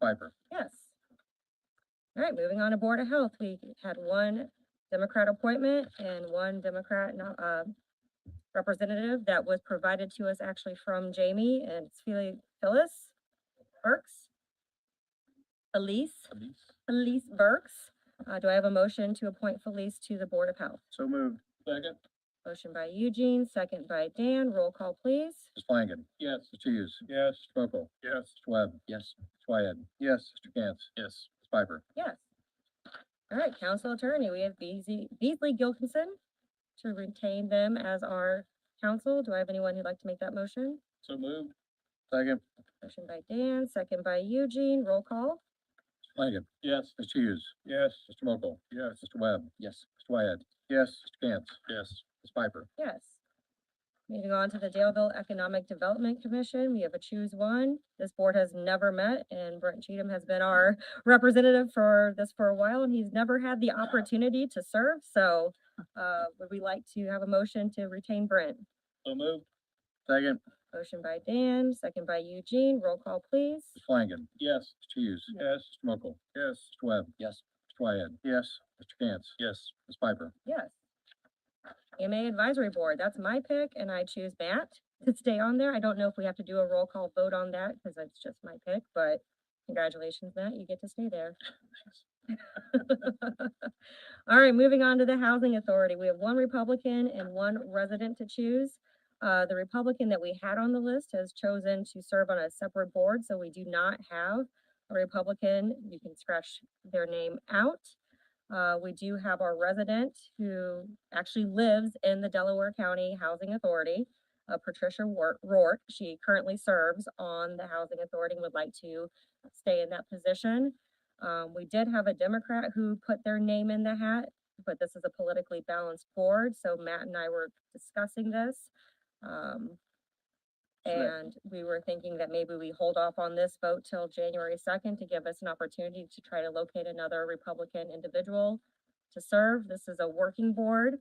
Schreiber. Yes. All right, moving on to Board of Health, we had one Democrat appointment and one Democrat, no- uh, representative that was provided to us actually from Jamie and it's Philly, Phyllis Burks. Elise, Solis. Elise Burks. Uh, do I have a motion to appoint Felice to the Board of Health? So moved. Second. Motion by Eugene, second by Dan. Roll call, please. Ms. Flanagan. Yes. Mr. Hughes. Yes. Mr. Mokel. Yes. Mr. Webb. Yes. Mr. Wyatt. Yes. Mr. Cantz. Yes. Ms. Piper. Yes. All right, council attorney, we have Beasley, Beasley Gilkinson to retain them as our counsel. Do I have anyone who'd like to make that motion? So moved. Second. Motion by Dan, second by Eugene, roll call. Ms. Flanagan. Yes. Mr. Hughes. Yes. Mr. Mokel. Yes. Mr. Webb. Yes. Mr. Wyatt. Yes. Mr. Cantz. Yes. Ms. Piper. Yes. Moving on to the Daleville Economic Development Commission, we have a choose one. This board has never met and Brent Cheatham has been our representative for this for a while and he's never had the opportunity to serve. So, uh, would we like to have a motion to retain Brent? So moved. Second. Motion by Dan, second by Eugene. Roll call, please. Ms. Flanagan. Yes. Mr. Hughes. Yes. Mr. Mokel. Yes. Mr. Webb. Yes. Mr. Wyatt. Yes. Mr. Cantz. Yes. Ms. Piper. Yes. EMA Advisory Board, that's my pick, and I choose Matt to stay on there. I don't know if we have to do a roll call vote on that, because that's just my pick, but congratulations, Matt, you get to stay there. All right, moving on to the Housing Authority. We have one Republican and one resident to choose. Uh, the Republican that we had on the list has chosen to serve on a separate board, so we do not have a Republican. You can scratch their name out. Uh, we do have our resident who actually lives in the Delaware County Housing Authority, uh, Patricia Wor- Rourke. She currently serves on the Housing Authority and would like to stay in that position. Um, we did have a Democrat who put their name in the hat, but this is a politically balanced board, so Matt and I were discussing this. Um, Sure. and we were thinking that maybe we hold off on this vote till January second to give us an opportunity to try to locate another Republican individual to serve. This is a working board.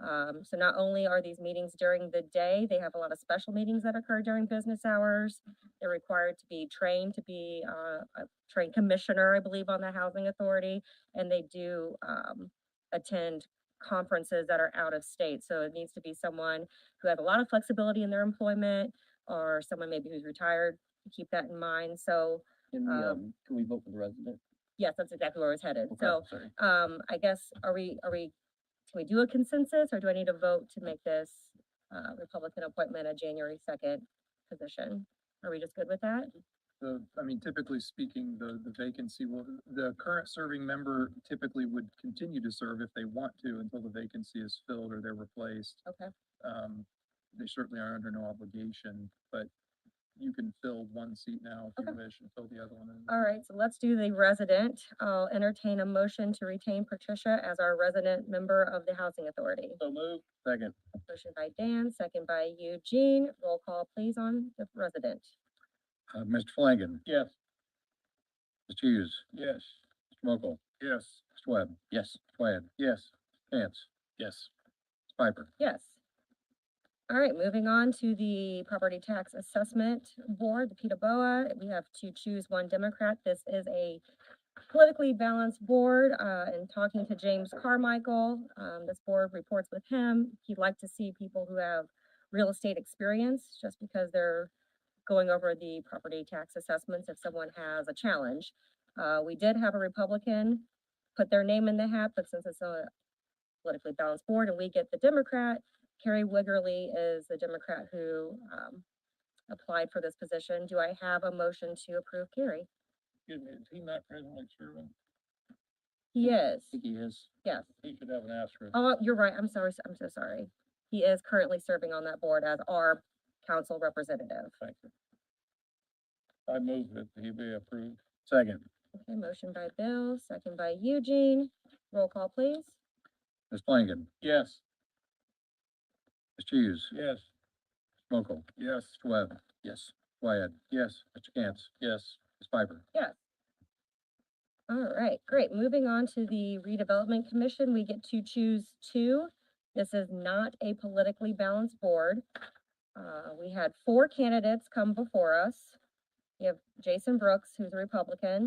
Um, so not only are these meetings during the day, they have a lot of special meetings that occur during business hours. They're required to be trained to be, uh, a trained commissioner, I believe, on the housing authority. And they do, um, attend conferences that are out of state. So it needs to be someone who has a lot of flexibility in their employment or someone maybe who's retired. Keep that in mind. So Can Um, we, um, can we vote for the resident? yes, that's exactly where I was headed. Okay, So sorry. um, I guess, are we, are we, can we do a consensus or do I need a vote to make this uh, Republican appointment a January second position? Are we just good with that? the, I mean, typically speaking, the, the vacancy will, the current serving member typically would continue to serve if they want to until the vacancy is filled or they're replaced. Okay. Um, they certainly are under no obligation, but you can fill one seat now if you wish and fill the other one. in. All right, so let's do the resident. I'll entertain a motion to retain Patricia as our resident member of the Housing Authority. So moved. Second. Motion by Dan, second by Eugene. Roll call please on the resident. Uh, Mr. Flanagan. Yes. Mr. Hughes. Yes. Mr. Mokel. Yes. Mr. Webb. Yes, Wyatt. Yes. Cantz. Yes. Piper. Yes. All right, moving on to the Property Tax Assessment Board, the PETA BOA. We have to choose one Democrat. This is a politically balanced board, uh, and talking to James Carmichael, um, this board reports with him. He'd like to see people who have real estate experience, just because they're going over the property tax assessments if someone has a challenge. Uh, we did have a Republican put their name in the hat, but since it's a politically balanced board and we get the Democrat, Carrie Wiggerly is the Democrat who, um, applied for this position. Do I have a motion to approve Carrie? Excuse me, is he not presently serving? He is. I think he is. Yes. He should have an asterisk. Oh, you're right. I'm sorry. s- I'm so sorry. He is currently serving on that board as our council representative. Thank you. I move that he be approved. Second. Okay, motion by Bill, second by Eugene. Roll call, please. Ms. Flanagan. Yes. Mr. Hughes. Yes. Mr. Mokel. Yes. Mr. Webb. Yes, Wyatt. Yes. Mr. Cantz. Yes. Ms. Piper. All right, great. Moving on to the redevelopment commission, we get to choose two. This is not a politically balanced board. Uh, we had four candidates come before us. You have Jason Brooks, who's a Republican.